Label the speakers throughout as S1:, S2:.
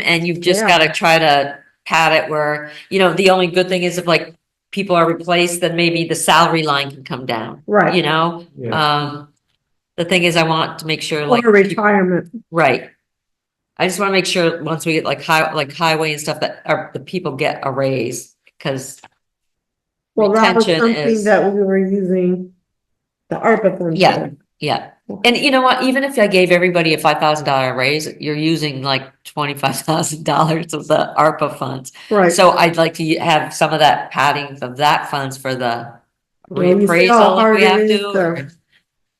S1: And you've just
S2: Yeah.
S1: gotta try to pad it where, you know, the only good thing is if like people are replaced, then maybe the salary line can come down, you
S2: Right,
S1: know?
S3: Yeah,
S1: Um, the thing is, I want to make sure like,
S2: or retirement,
S1: right. I just wanna make sure once we get like high, like highway and stuff that are, the people get a raise, cause,
S2: well, that was
S1: Retention is-
S2: something that we were using the ARPA funds
S1: Yeah.
S2: for.
S1: yeah. And you know what, even if I gave everybody a five thousand dollar raise, you're using like twenty-five thousand dollars of the ARPA funds.
S2: Right.
S1: So I'd like to have some of that padding of that funds for the
S2: I mean, you see
S1: reappraisal
S2: how
S1: if
S2: hard
S1: we
S2: it
S1: have
S2: is
S1: to. or-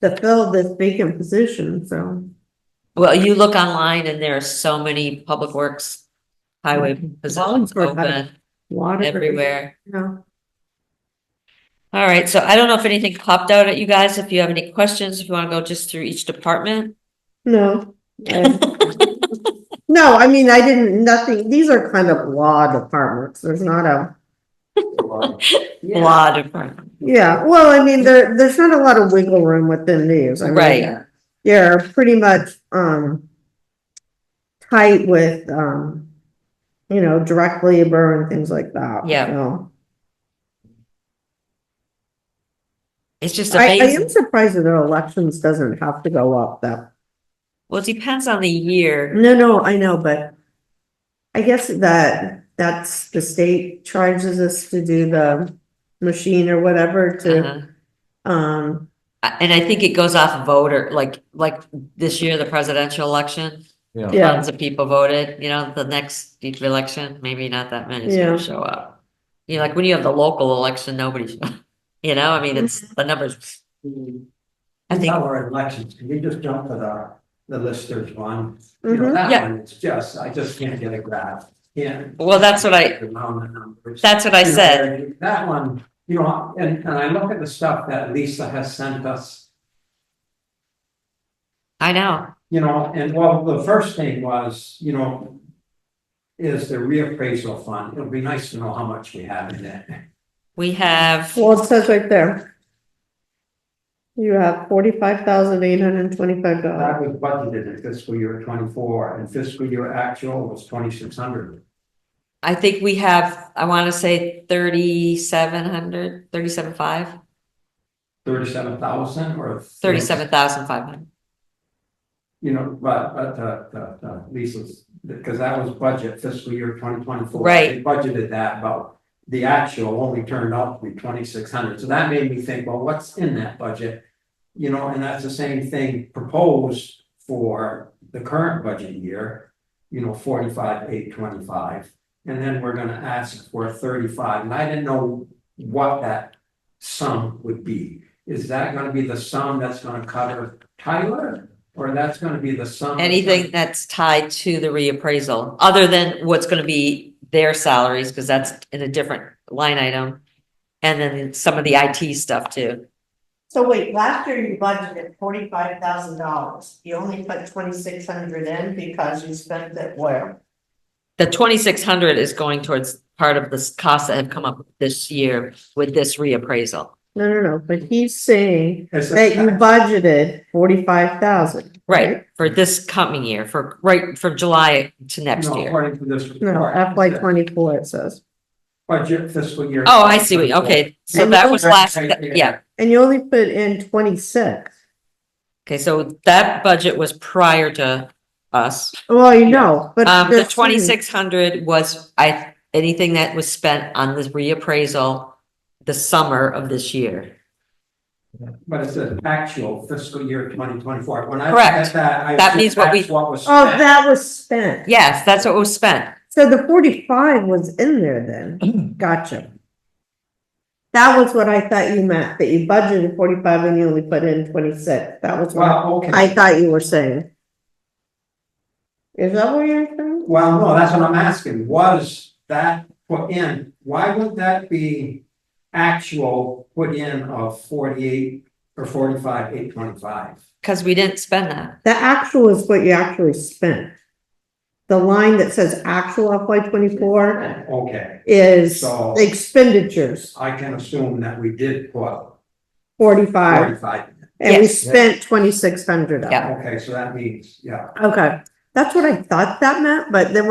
S2: To fill this vacant position, so,
S1: Well, you look online and there are so many public works, highway
S2: Mm-hmm.
S1: positions
S2: Wallingford had
S1: open
S2: water.
S1: everywhere.
S2: Yeah.
S1: All right, so I don't know if anything popped out at you guys, if you have any questions, if you want to go just through each department.
S2: No. And- No, I mean, I didn't, nothing, these are kind of law departments, there's not a,
S1: Law department,
S2: yeah, well, I mean, there, there's not a lot of wiggle room within these. I mean,
S1: Right.
S2: They're pretty much, um, tight with, um, you know, direct labor and things like that.
S1: Yeah.
S2: so.
S1: it's just
S2: I, I am
S1: amazing.
S2: surprised that their elections doesn't have to go up that,
S1: Well, it depends on the year.
S2: no, no, I know, but I guess that, that's, the state charges us to do the machine or whatever to,
S1: Uh-huh.
S2: um,
S1: Uh, And I think it goes off voter, like, like this year, the presidential election.
S3: yeah.
S2: Yeah,
S1: tons of people voted, you know, the next election, maybe not that many is
S2: Yeah.
S1: gonna show up. You know, like when you have the local election, nobody's, you know, I mean, it's, the numbers, I think,
S4: Our elections, can you just jump to the, the listers one? You know,
S2: Mhm.
S4: that
S1: Mm-hmm. Yeah.
S4: one, it's just, I just can't get a grasp, can't.
S1: Well, that's what I-
S4: The round numbers.
S1: that's what I
S4: You know,
S1: said,
S4: That one, you know, and, and I look at the stuff that Lisa has sent us,
S1: I know,
S4: you know, and well, the first thing was, you know, is the reappraisal fund, it would be nice to know how much we have in it.
S1: we have,
S2: well, it says right there. You have forty-five thousand eight hundred and twenty-five dollars.
S4: That was budgeted in fiscal year twenty-four, and fiscal year actual was twenty-six hundred.
S1: I think we have, I wanna say thirty-seven hundred, thirty-seven five,
S4: Thirty-seven thousand or?
S1: thirty-seven thousand five hundred.
S4: You know, but, but, uh, uh, uh, Lisa's, because that was budget fiscal year twenty twenty-four.
S1: Right.
S4: They budgeted that, but the actual only turned out to be twenty-six hundred, so that made me think, well, what's in that budget? You know, and that's the same thing proposed for the current budget year, you know, forty-five, eight, twenty-five. And then we're gonna ask for thirty-five, and I didn't know what that sum would be. Is that gonna be the sum that's gonna cover Tyler, or that's gonna be the sum? that's gonna-
S1: Anything that's tied to the reappraisal, other than what's gonna be their salaries, because that's in a different line item. And then some of the IT stuff too.
S5: So wait, last year you budgeted forty-five thousand dollars, you only put twenty-six hundred in because you spent it where?
S1: The twenty-six hundred is going towards part of this cost that have come up this year with this reappraisal.
S2: No, no, no, but he's saying
S4: It's a-
S2: that you budgeted forty-five thousand.
S1: Right, for this coming year, for, right, from July to next
S4: No,
S1: year.
S4: According to this.
S2: No,
S4: report,
S2: FY
S4: the
S2: twenty-four it says.
S4: Budget fiscal year.
S1: Oh, I see, what you- okay, so
S2: And
S1: that
S2: those
S1: was
S2: are
S1: last,
S4: right
S1: that-
S4: there.
S1: yeah,
S2: And you only put in twenty-six.
S1: okay, so that budget was prior to us.
S2: Well, you know, but.
S1: Um, the
S2: that's-
S1: twenty-six hundred was, I, anything that was spent on this reappraisal the summer of this year.
S4: But it's an actual fiscal year twenty twenty-four. When I look
S1: Correct.
S4: at that, I.
S1: That
S4: think
S1: means what we-
S4: that's What was.
S2: Oh,
S4: spent.
S2: that was spent.
S1: Yes, that's what was spent.
S2: So the forty-five was in there then. Gotcha. That was what I thought you meant, that you budgeted forty-five and you only put in twenty-six. That was what I
S4: Well, okay.
S2: I thought you were saying. Is that what you're saying?
S4: Well, no, that's what I'm asking. Was that put in? Why would that be actual put in of forty-eight or forty-five, eight twenty-five?
S1: Cause we didn't spend that.
S2: The actual is what you actually spent. The line that says actual FY twenty-four
S4: Okay,
S2: is
S4: So-
S2: expenditures,
S4: I can assume that we did put
S2: forty-five,
S4: forty-five.
S2: and we
S1: Yes.
S2: spent twenty-six hundred.
S1: Yeah.
S4: Okay, so that means, yeah.
S2: Okay, that's what I thought that meant, but then when